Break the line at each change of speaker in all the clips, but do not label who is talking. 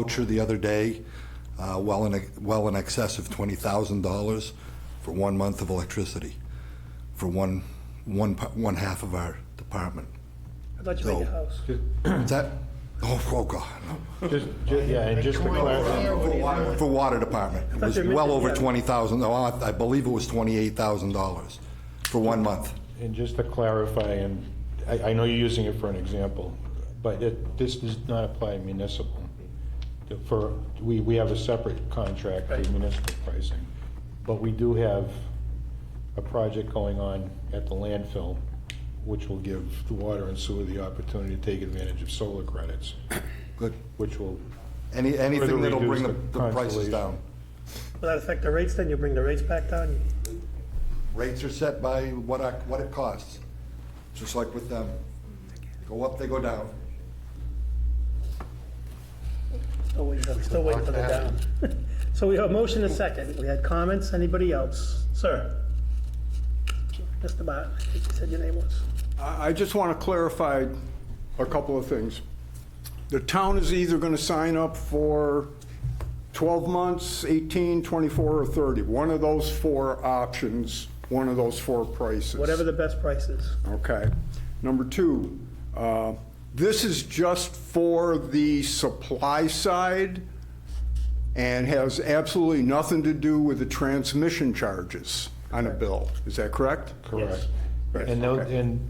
voucher the other day, uh, well in, well in excess of $20,000 for one month of electricity, for one, one, pa- one half of our department.
I thought you made
No.
your house.
Is that, oh, oh, God, no.
Just, ju- yeah, and just to clarify,
For water- For water department, it was
they meant
well
it,
over
yeah.
twenty thousand, no, I I believe it was twenty-eight thousand dollars for one month.
and just to clarify, and I, I know you're using it for an example, but it, this does not apply municipal. The- For, we, we have a separate contract for
Right.
municipal pricing, but we do have a project going on at the landfill, which will give the water and sewer the opportunity to take advantage of solar credits,
Good.
which will,
Any, anything that'll bring the
reduce the
the prices
consolation.
down.
Will that affect the rates then? You bring the rates back down?
Rates are set by what our, what it costs, just like with them. Go up, they go down.
Still waiting for, still waiting for the down. So we have a motion and a second. We had comments. Anybody else? Sir? Mr. Bott, I think you said your name was.
I I just want to clarify a couple of things. The town is either going to sign up for 12 months, 18, 24, or 30. One of those four options, one of those four prices.
Whatever the best price is.
Okay. Number two, uh, this is just for the supply side and has absolutely nothing to do with the transmission charges on a bill. Is that correct?
correct.
Right,
And tho-
okay.
and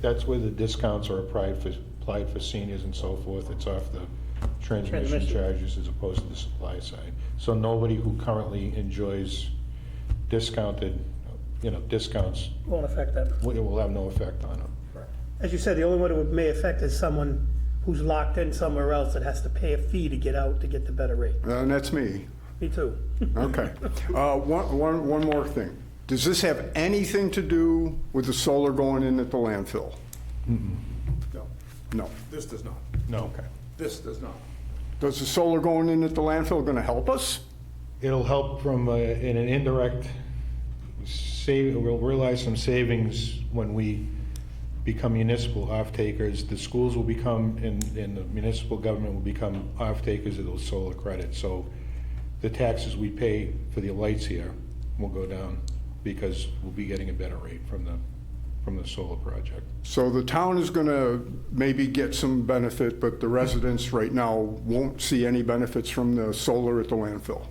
that's where the discounts are applied for, applied for seniors and so forth. It's off the transmission
Transmission.
charges as opposed to the supply side. So nobody who currently enjoys discounted, you know, discounts,
Won't affect them.
will- it will have no effect on them.
As you said, the only one it would- may affect is someone who's locked in somewhere else and has to pay a fee to get out to get the better rate.
Uh, And that's me.
Me too.
Okay. Uh, One, one, one more thing. Does this have anything to do with the solar going in at the landfill?
No,
No.
Mm-hmm. this does not.
No. Okay.
This does not.
Does the solar going in at the landfill going to help us?
It'll help from, uh, in an indirect, save, we'll realize some savings when we become municipal off-takers. The schools will become, and, and the municipal government will become off-takers of those solar credits. So the taxes we pay for the lights here will go down because we'll be getting a better rate from the, from the solar project.
So the town is going to maybe get some benefit, but the residents right now won't see any benefits from the solar at the landfill.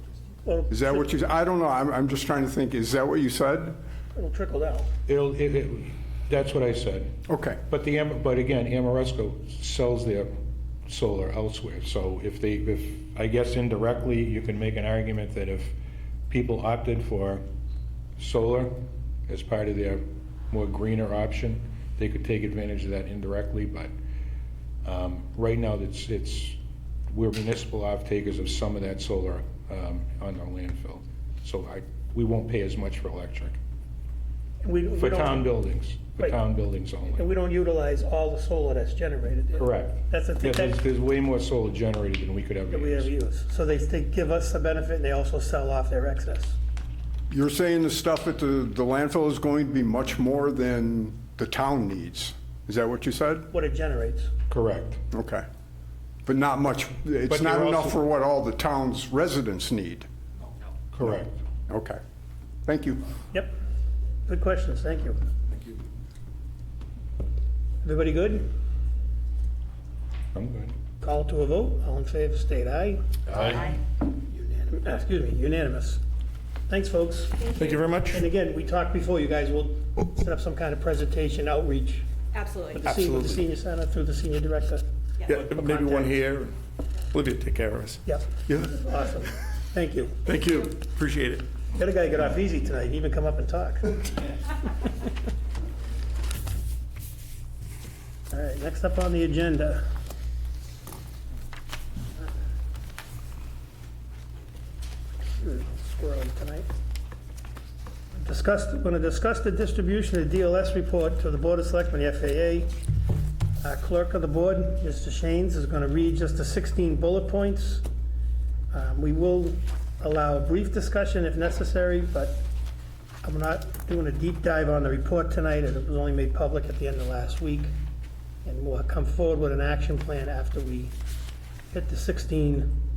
Well,
Is that what you, I don't know, I'm, I'm just trying to think, is that what you said?
It'll trickle down.
It'll, it, it, that's what I said.
Okay.
But the, Am- but again, Amoresco sells their solar elsewhere, so if they, if, I guess indirectly, you can make an argument that if people opted for solar as part of their more greener option, they could take advantage of that indirectly, but um, right now, it's, it's, we're municipal off-takers of some of that solar um, on our landfill, so I, we won't pay as much for electric,
We- we
for
don't-
town buildings, for
Right.
town buildings only.
And we don't utilize all the solar that's generated.
Correct.
That's the thing,
Yeah, There's,
that-
there's way more solar generated than we could ever
that we ever
use.
use. So they, they give us a benefit and they also sell off their excess.
You're saying the stuff at the, the landfill is going to be much more than the town needs? Is that what you said?
What it generates.
Correct.
Okay. But not much, it's
But
not
you're
enough
also-
for what all the town's residents need.
Correct.
Okay. Thank you.
Yep. Good questions, thank you. Thank you. Everybody good?
I'm good.
Call to a vote, all in favor, state aye. Unanim- Excuse me, unanimous. Thanks, folks.
Thank you very much.
And again, we talked before, you guys will set up some kind of presentation outreach
Absolutely.
with the senior, with the senior center through the senior director.
Yeah,
maybe one
here. Olivia, take care of us.
Yep,
Yeah.
awesome. Thank you.
Thank you. Appreciate it.
The other guy got off easy tonight, he even come up and talk. All right, next up on the agenda. Squirrely tonight. Discuss, going to discuss the distribution of DLS report to the Board of Selectmen, the FAA. Our clerk of the board, Mr. Shanes, is going to read just the 16 bullet points. Um, We will allow a brief discussion if necessary, but I'm not doing a deep dive on the report tonight, as it was only made public at the end of last week. And we'll come forward with an action plan after we hit the 16